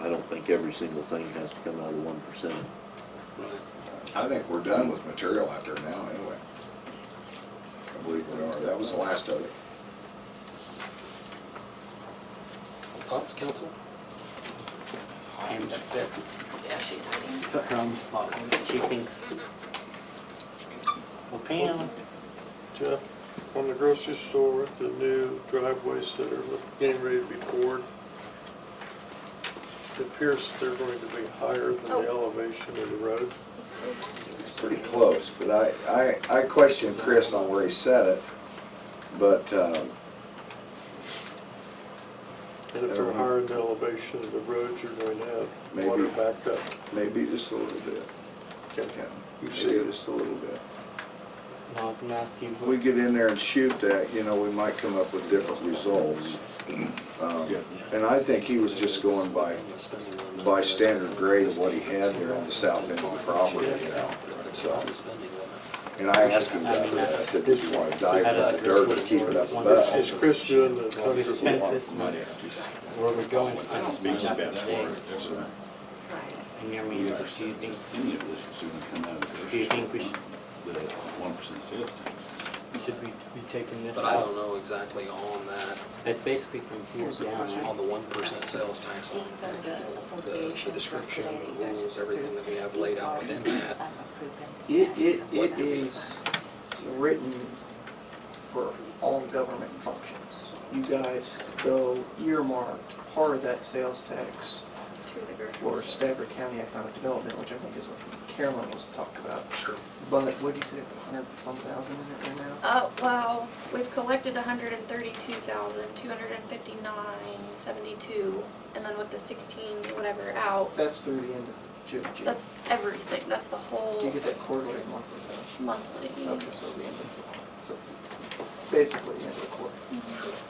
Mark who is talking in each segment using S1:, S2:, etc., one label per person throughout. S1: I don't think every single thing has to come out of one percent.
S2: I think we're done with material out there now, anyway. I believe we are. That was the last of it.
S3: Thoughts, council?
S4: Hand back there.
S5: Yeah, she's waiting.
S4: Put her on the spot. She thinks. Well, Pam,
S6: Jeff, on the grocery store, the new driveways that are getting ready to be poured, it appears that they're going to be higher than the elevation of the road.
S2: It's pretty close, but I, I, I questioned Chris on where he said it, but, um,
S6: And if they're higher than the elevation of the road, you're going to have water
S2: Maybe.
S6: backed up.
S2: maybe just a little bit.
S6: Okay.
S2: Yeah,
S6: You
S2: maybe
S6: see it.
S2: Just a little bit.
S4: now I'm gonna ask you.
S2: If we get in there and shoot that, you know, we might come up with different results. Um, And I think he was just going by, by standard grade of what he had there on the south end of the property, you know, so. And I asked him about that, I said, did you want to dive in the dirt and keep it up
S6: Is
S2: above?
S6: Chris doing the
S4: We spent
S6: concrete?
S4: this money. Where we go and spend this money. And I mean, do you think,
S7: Any of this is gonna come out of
S4: do you think we should,
S7: the one percent sales tax.
S4: should we be taking this
S3: But I don't
S4: off?
S3: know exactly on that,
S4: That's basically from here down,
S3: on
S4: right?
S3: the one percent sales tax on the, the description, the rules, everything that we have laid out within that.
S8: It, it, it is written for all government functions. You guys go earmarked part of that sales tax for Stafford County Economic Development, which I think is what Carolyn was talking about.
S3: Sure.
S8: But what'd you say, a hundred and some thousand in it right now?
S9: Uh, well, we've collected hundred and thirty-two thousand, two hundred and fifty-nine, seventy-two, and then with the sixteen, whatever, out,
S8: That's through the end of June. June.
S9: that's everything, that's the
S8: You
S9: whole
S8: get that quarterly and monthly,
S9: monthly.
S8: though? Okay, so the end of, so basically, the end of the quarter.
S9: Mm-hmm.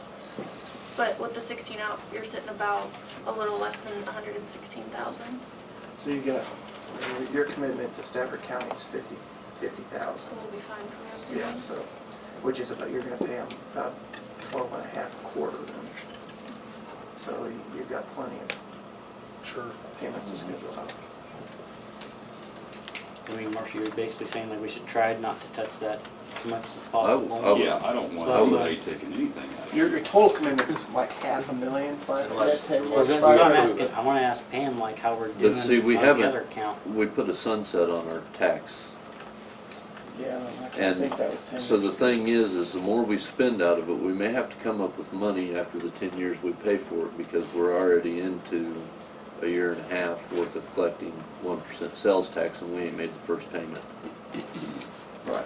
S9: But with the sixteen out, you're sitting about a little less than hundred and sixteen thousand,
S8: So you got, your commitment to Stafford County is fifty, fifty
S9: so
S8: thousand.
S9: we'll be fine for
S8: Yeah,
S9: everything.
S8: so, which is about, you're gonna pay them about twelve and a half a quarter then. So you- you've got plenty of
S3: Sure.
S8: payments to schedule out.
S4: I mean, Marcia, you're basically saying like we should try not to touch that as much as
S1: would-
S4: possible.
S1: I would-
S7: oh, Yeah, I don't want anybody taking anything out of it.
S8: Your, your total commitment's like half a million, five,
S3: Unless-
S8: that's it.
S3: unless
S4: Well,
S8: was
S4: that's
S3: Let's
S4: what I'm
S3: try
S8: five.
S3: to do
S4: asking,
S3: it.
S4: I wanna ask Pam like how we're doing on
S1: see, we
S4: the
S1: haven't-
S4: other count.
S1: We put a sunset on our tax.
S8: Yeah, I can't
S1: And
S8: think that was ten.
S1: so the thing is, is the more we spend out of it, we may have to come up with money after the ten years we pay for it because we're already into a year and a half worth of collecting one percent sales tax and we ain't made the first payment.
S8: Right.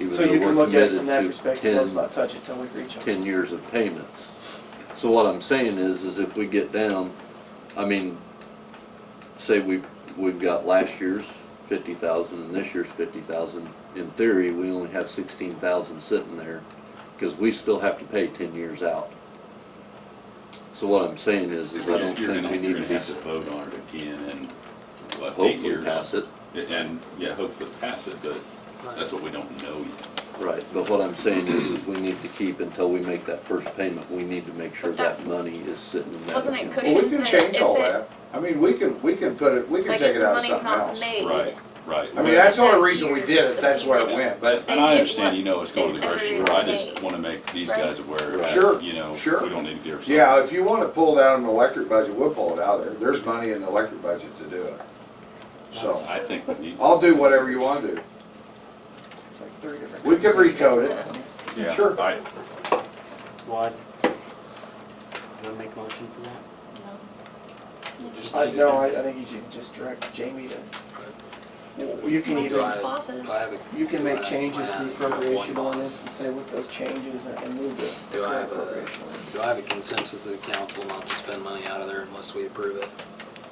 S1: even
S8: So
S1: though
S8: you
S1: we're
S8: can look at it
S1: committed
S8: from that
S1: to
S8: perspective, let's not touch it till we reach
S1: 10
S8: them.
S1: 10 years of payments. So what I'm saying is, is if we get down, I mean, say we, we've got last year's 50,000 and this year's 50,000, in theory, we only have 16,000 sitting there, because we still have to pay 10 years out. So what I'm saying is, is I don't
S7: You're
S1: think
S7: gonna,
S1: we
S7: you're
S1: need to
S7: gonna
S1: be,
S7: have to vote on it again in, what, eight
S1: hopefully
S7: years?
S1: pass it.
S7: And, yeah, hopefully pass it, but that's what we don't know yet.
S1: Right, but what I'm saying is, is we need to keep until we make that first payment, we need to make sure that money is sitting in that
S9: Wasn't it
S1: account.
S9: cushion
S2: Well, we can
S9: that
S2: change
S9: if
S2: all
S9: it-
S2: that. I mean, we can, we can put it, we can
S9: Like
S2: take
S9: if
S2: it
S9: the
S2: out of
S9: money's
S2: something
S9: not
S2: else.
S9: made.
S7: Right, right.
S2: I mean, that's the only reason we did it, that's where it went, but
S7: And I understand, you know, it's going to the grocery store, I just wanna make these guys aware,
S1: Right.
S2: Sure,
S7: that, you know,
S2: sure.
S7: we don't need to give ourselves.
S2: Yeah, if you want to pull down an electric budget, we'll pull it out of there. There's money in the electric budget to do it. So,
S7: I think we need. to-
S2: I'll do whatever you want to do.
S8: It's like three different.
S2: We could recode it.
S7: Yeah,
S2: Sure.
S7: I,
S4: What? Do I make a motion for that?
S3: Just
S8: I,
S3: think-
S8: no, I, I think you should just direct Jamie to, Well, you can
S3: Do
S8: either,
S3: I-
S9: Bosses.
S3: do I have a-
S8: you can
S3: do I
S8: make
S3: have
S8: changes to
S3: my-
S8: the
S3: one
S8: appropriation
S3: boss?
S8: ordinance and say with those changes and- and move the
S3: Do I have a,
S8: appropriation ordinance.
S3: do I have a consensus of the council not to spend money out of there unless we approve it?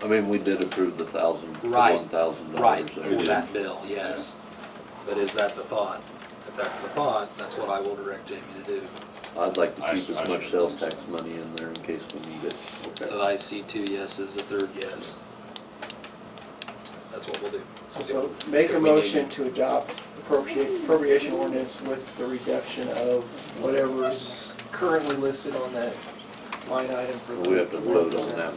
S1: I mean, we did approve the thousand, the
S3: Right,
S1: one thousand
S3: Right,
S1: dollars.
S3: for that bill, yes. But is that the thought? If that's the thought, that's what I will direct Jamie to do.
S1: I'd like to
S7: I-
S1: keep
S7: I
S1: as much
S7: should-
S1: sales tax money in there in case we need it.
S3: So I see two yeses, a third yes. That's what we'll do.
S8: So- So make a
S3: If we need
S8: motion
S3: it.
S8: to adopt appropriate, appropriation ordinance with the reduction of whatever's currently listed on that line item for the.
S1: We have to vote on
S8: 1%.
S1: that